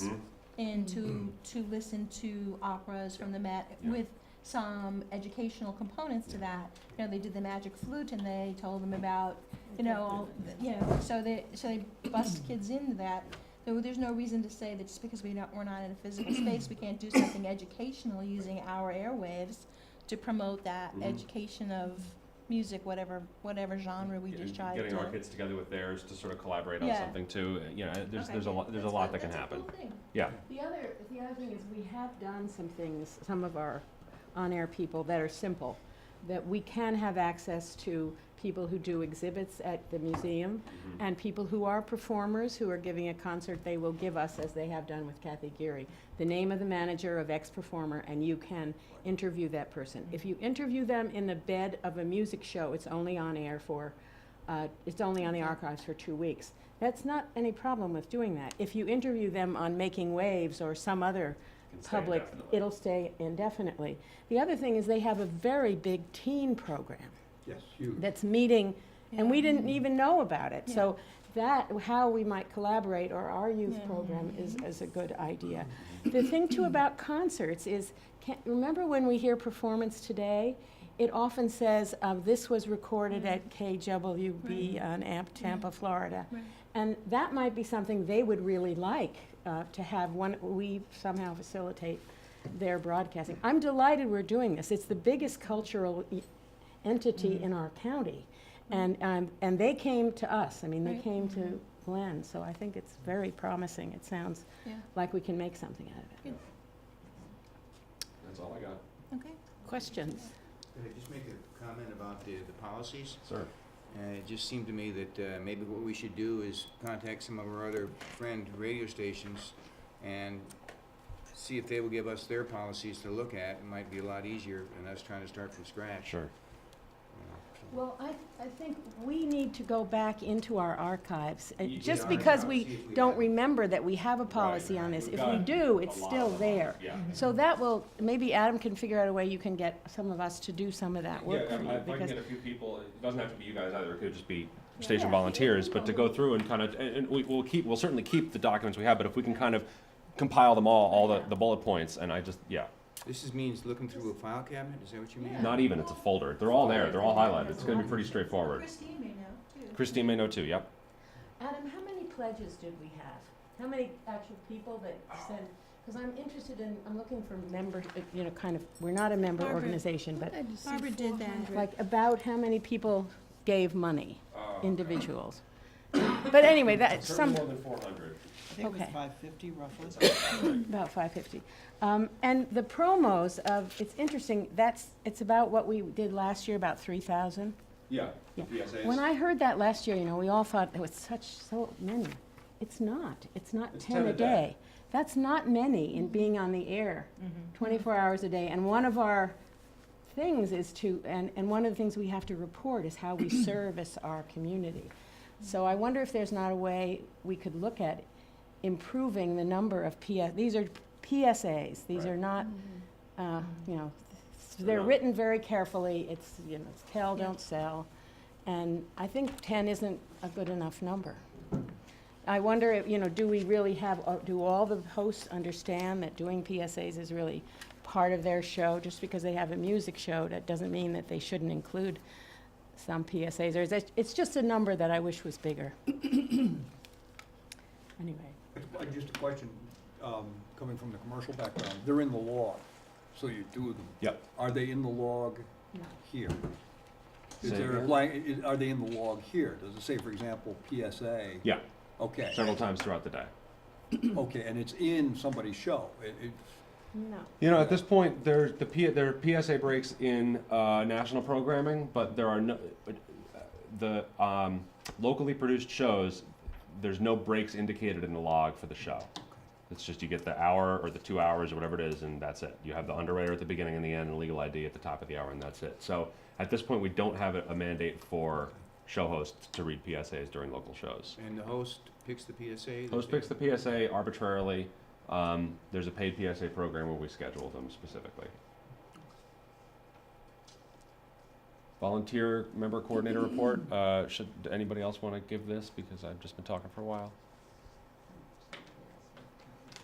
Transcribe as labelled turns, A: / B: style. A: and to,
B: Mm.
A: to listen to operas from the Met
B: Yeah.
A: with some educational components to that. You know, they did the magic flute and they told them about, you know, all, the- you know, so they, so they bust kids into that. There, there's no reason to say that just because we not, we're not in a physical space, we can't do something educational using our airwaves to promote that
B: Mhm.
A: education of music, whatever, whatever genre we
B: Getting-
A: just tried to.
B: Getting our kids together with theirs to sort of collaborate on
A: Yeah.
B: something too, uh, you know, there's,
A: Okay,
B: there's a lot, there's a
A: that's
B: lot
A: good.
B: that can
A: That's a
B: happen.
A: cool thing.
B: Yeah,
C: The other, the other thing is we have done some things, some of our on-air people that are simple, that we can have access to people who do exhibits at the museum and people who are performers who are giving a concert, they will give us, as they have done with Kathy Geary, the name of the manager of X performer and you can interview that person. If you interview them in the bed of a music show, it's only on air for, uh, it's only on the archives for two weeks. That's not any problem with doing that. If you interview them on Making Waves or some other
B: Can stay
C: public,
B: indefinitely.
C: it'll stay indefinitely. The other thing is they have a very big teen program
D: Yes, huge.
C: that's meeting, and we
A: Yeah.
C: didn't even know about it. So that, how we might collaborate or our youth
A: Yeah.
C: program is, is a good idea. The thing too about concerts is, can, remember when we hear performance today? It often says, um, this was recorded at KWB on Amp Tampa, Florida.
A: Right.
C: And that might be something they would really like, uh, to have one, we somehow facilitate their broadcasting. I'm delighted we're doing this. It's the biggest cultural e- entity in our county. And, um, and they came to us, I mean, they
A: Right.
C: came to Glenn, so I think it's very promising. It sounds
A: Yeah.
C: like we can make something out of it.
B: That's all I got.
A: Okay.
C: Questions?
D: Could I just make a comment about the, the policies?
B: Sir.
D: Uh, it just seemed to me that, uh, maybe what we should do is contact some of our other friend radio stations and see if they will give us their policies to look at. It might be a lot easier than us trying to start from scratch.
B: Sure.
D: you know, so.
C: Well, I, I think we need to go back into our archives, uh,
B: Y-
C: just
B: yeah,
C: because
D: I'll see
C: we
D: if
C: don't
D: have-
C: remember that we have a policy on this.
B: We've
C: If we
B: got
C: do,
B: a
C: it's
B: lot
C: still
B: of-
C: there.
B: Yeah.
C: So that will, maybe Adam can figure out a way you can get some of us to do some of that
B: Yeah,
C: work for
B: if
C: you.
B: I- if I can
C: because-
B: get a few people, it doesn't have to be you guys either, it could just be station
C: Yeah.
B: volunteers, but to go through and kind of, and, and we, we'll keep, we'll certainly keep the documents we have, but if we can kind of compile them all, all the, the bullet points, and I just, yeah,
D: This is means looking through a file cabinet, is that what you mean?
B: not even, it's a folder, they're all there, they're all highlighted, it's gonna be pretty straightforward.
A: Christine may know too.
B: Christine may know too, yep.
C: Adam, how many pledges did we have? How many actual people that sent, because I'm interested in, I'm looking for member, uh, you know, kind of, we're not a member
A: Barbara.
C: organization, but
A: Barbara did that.
C: like about how many people gave money,
B: Uh,
C: individuals? But anyway, that,
B: Certainly
C: some,
B: more than four hundred.
E: I think it was
C: Okay.
E: five fifty roughly.
C: about five fifty. Um, and the promos of, it's interesting, that's, it's about what we did last year, about three thousand.
B: Yeah.
C: Yeah.
B: Yes, it
C: When
B: is.
C: I heard that last year, you know, we all thought it was such, so many. It's not. It's not
B: It's
C: 10 a day. That's not many in being on the air
A: Mm-hmm.
C: 24 hours a day. And one of our things is to, and, and one of the things we have to report is how we service our community. So I wonder if there's not a way we could look at improving the number of PS, these are PSAs. These
B: Right.
C: are not, uh, you know,
B: They're
C: they're
B: not-
C: written very carefully. It's, you know, it's tell,
A: Yeah.
C: don't sell. And I think 10 isn't a good enough number. I wonder, if, you know, do we really have, uh, do all the hosts understand that doing PSAs is really part of their show? Just because they have a music show, that doesn't mean that they shouldn't include some PSAs. Or is it, it's just a number that I wish was bigger. Anyway,
F: Uh, Just a question, um, coming from the commercial background, they're in the log, so you do them.
B: Yep.
F: Are they in the log
C: No.
F: here? Is
B: Say
F: there a
B: again?
F: blank, i- are they in the log here? Does it say, for example, PSA?
B: Yeah,
F: Okay,
B: several times throughout the day.
F: okay, and it's in somebody's show. It, it's,
C: no.
B: You know, at this point, there's the P, there are PSA breaks in uh, national programming, but there are no but, uh, the um, locally produced shows. There's no breaks indicated in the log for the show. It's just you get the hour or the two hours or whatever it is, and that's it. You have the underwriter at the beginning and the end, and legal ID at the top of the hour, and that's it. So at this point, we don't have a a mandate for show hosts to read PSAs during local shows.
D: And the host picks the PSA? that
B: Host
D: they-
B: picks the PSA arbitrarily. Um, there's a paid PSA program where we schedule them specifically. Volunteer member coordinator report. Uh, should anybody else want to give this because I've just been talking for a while?